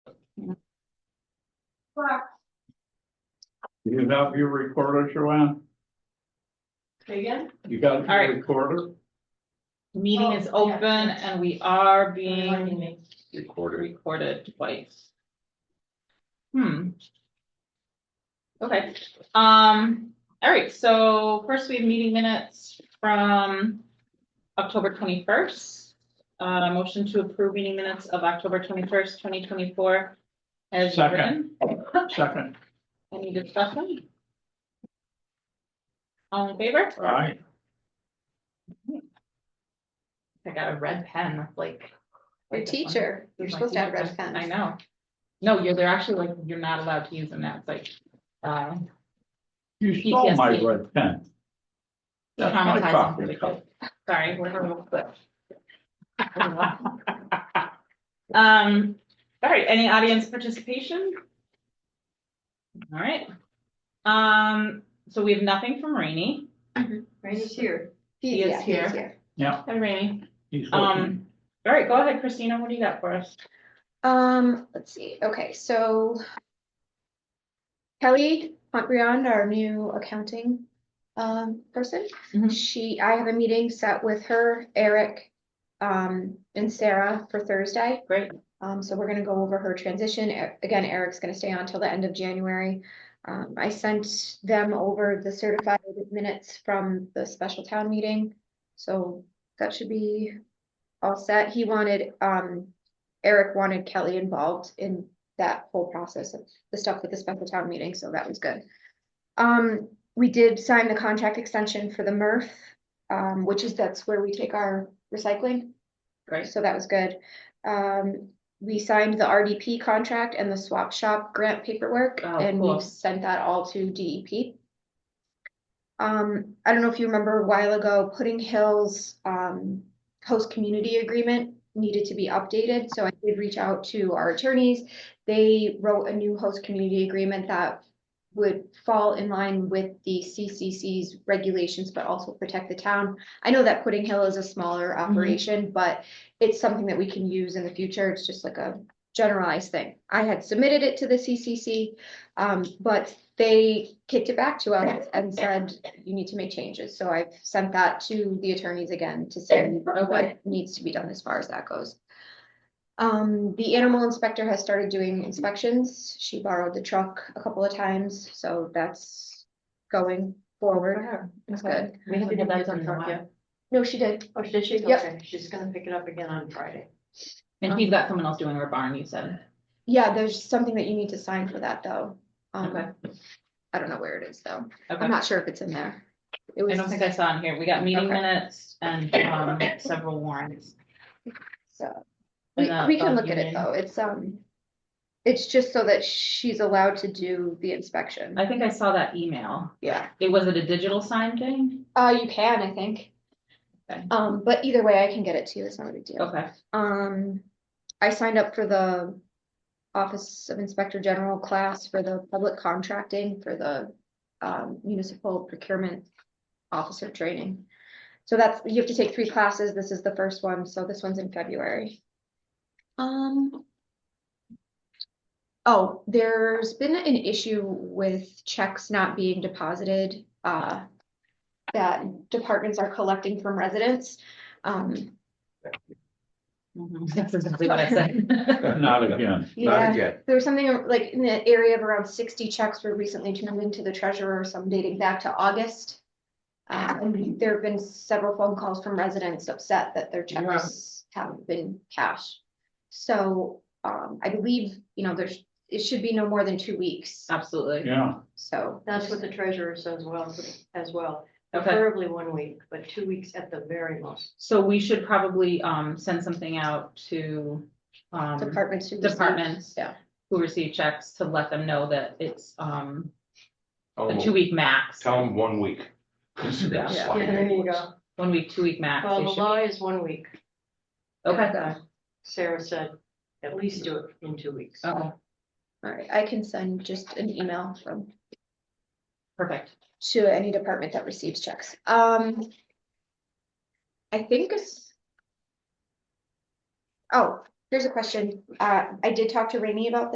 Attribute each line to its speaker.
Speaker 1: Correct.
Speaker 2: You have your recorder, Joanne?
Speaker 1: Say again?
Speaker 2: You got
Speaker 3: All right.
Speaker 2: your recorder?
Speaker 3: Meeting is
Speaker 1: Oh, yeah.
Speaker 3: open and we are
Speaker 1: Reminding
Speaker 3: being
Speaker 1: me.
Speaker 2: Recorder.
Speaker 3: recorded twice. Hmm. Okay, um, all right, so first we have meeting minutes from October twenty-first. Uh, motion to approve meeting minutes of October twenty-first, twenty twenty-four. As
Speaker 2: Second.
Speaker 3: written,
Speaker 2: Second,
Speaker 3: any discussion? All in favor?
Speaker 2: all right.
Speaker 3: I got a red pen, that's like.
Speaker 4: Your teacher, you're supposed to have red pens.
Speaker 3: I know. No, you're, they're actually like, you're not allowed to use them now, it's like, uh,
Speaker 2: You stole my
Speaker 3: PTSD.
Speaker 2: red pen. That's my
Speaker 3: traumatizing. for
Speaker 2: copy.
Speaker 3: the kids. Sorry, we're gonna move quick. Um, all right, any audience participation? All right. Um, so we have nothing from Rainey.
Speaker 1: Randy's here.
Speaker 3: He is
Speaker 4: Yeah, he
Speaker 3: here. Hi, Rainey.
Speaker 2: He's looking.
Speaker 3: Um, all right, go ahead, Christina, what do you got for us?
Speaker 4: Um, let's see, okay, so. Kelly Pontbriand, our new accounting um person,
Speaker 3: Mhm.
Speaker 4: she, I have a meeting set with her, Eric. Um, and Sarah for Thursday.
Speaker 3: Great.
Speaker 4: Um, so we're gonna go over her transition. E- Again, Eric's gonna stay on till the end of January. Um, I sent them over the certified minutes from the special town meeting. So that should be all set. He wanted, um, Eric wanted Kelly involved in that whole process of the stuff with the special town meeting, so that was good. Um, we did sign the contract extension for the MRF, um, which is, that's where we take our recycling.
Speaker 3: Great.
Speaker 4: So that was good. Um, we signed the RDP contract and the swap shop grant paperwork,
Speaker 3: Oh,
Speaker 4: and
Speaker 3: cool.
Speaker 4: we've sent that all to DEP. Um, I don't know if you remember a while ago, Pudding Hills, um, host community agreement needed to be updated, so I did reach out to our attorneys. They wrote a new host community agreement that would fall in line with the CCC's regulations, but also protect the town. I know that Pudding Hill is a smaller operation, but it's something that we can use in the future. It's just like a generalized thing. I had submitted it to the CCC, um, but they kicked it back to us and said, you need to make changes. So I've sent that to the attorneys again to see
Speaker 3: Okay.
Speaker 4: what needs to be done as far as that goes. Um, the animal inspector has started doing inspections. She borrowed the truck a couple of times, so that's going forward. That's good.
Speaker 1: We haven't had that done yet.
Speaker 4: No, she did.
Speaker 1: Oh, did she?
Speaker 4: Yep.
Speaker 1: Okay, she's gonna pick it up again on Friday.
Speaker 3: And he's got someone else doing her barn, you said.
Speaker 4: Yeah, there's something that you need to sign for that though.
Speaker 3: Okay.
Speaker 4: Um, I don't know where it is though.
Speaker 3: Okay.
Speaker 4: I'm not sure if it's in there. It
Speaker 3: I
Speaker 4: was,
Speaker 3: don't think I saw in here. We got meeting
Speaker 4: Okay.
Speaker 3: minutes and um several warrants.
Speaker 4: so,
Speaker 3: in
Speaker 4: we,
Speaker 3: the
Speaker 4: we can
Speaker 3: above
Speaker 4: look at it
Speaker 3: union.
Speaker 4: though. It's, um, it's just so that she's allowed to do the inspection.
Speaker 3: I think I saw that email.
Speaker 4: Yeah.
Speaker 3: It was it a digital sign thing?
Speaker 4: Uh, you can, I think.
Speaker 3: Okay.
Speaker 4: Um, but either way, I can get it to you. It's not a big deal.
Speaker 3: Okay,
Speaker 4: Um, I signed up for the Office of Inspector General class for the public contracting for the um, municipal procurement officer training. So that's, you have to take three classes. This is the first one, so this one's in February. Um. Oh, there's been an issue with checks not being deposited, uh, that departments are collecting from residents. Um,
Speaker 3: Mhm. that's exactly what I said.
Speaker 2: Not again.
Speaker 4: Yeah, there was something ar- like in the area of around sixty checks were recently turned into the treasurer, some dating back to August. Uh, and there have been several phone calls from residents upset that their
Speaker 3: Yeah.
Speaker 4: checks haven't been cashed. So, um, I believe, you know, there's, it should be no more than two weeks,
Speaker 3: Absolutely.
Speaker 2: Yeah,
Speaker 4: so.
Speaker 1: That's what the treasurer says well, as well.
Speaker 3: Okay.
Speaker 1: Preferably one week, but two weeks at the very most.
Speaker 3: So we should probably um send something out to um
Speaker 4: Departments. who receive-
Speaker 3: departments.
Speaker 4: Yeah.
Speaker 3: who receive checks to let them know that it's um
Speaker 5: Tell
Speaker 3: a
Speaker 5: 'em-
Speaker 3: two week max.
Speaker 5: Oh, Tell them one week. 'Cause
Speaker 3: Yeah.
Speaker 5: that's
Speaker 3: Yeah,
Speaker 5: like-
Speaker 3: One week, two week max.
Speaker 1: Well,
Speaker 3: they
Speaker 1: the
Speaker 3: should-
Speaker 1: law is one week.
Speaker 3: Okay.
Speaker 1: Sarah said, at least do it in two weeks.
Speaker 3: Okay,
Speaker 4: All right, I can send just an email from
Speaker 3: perfect.
Speaker 4: to any department that receives checks. Um. I think it's. Oh, here's a question. Uh, I did talk to Rainey about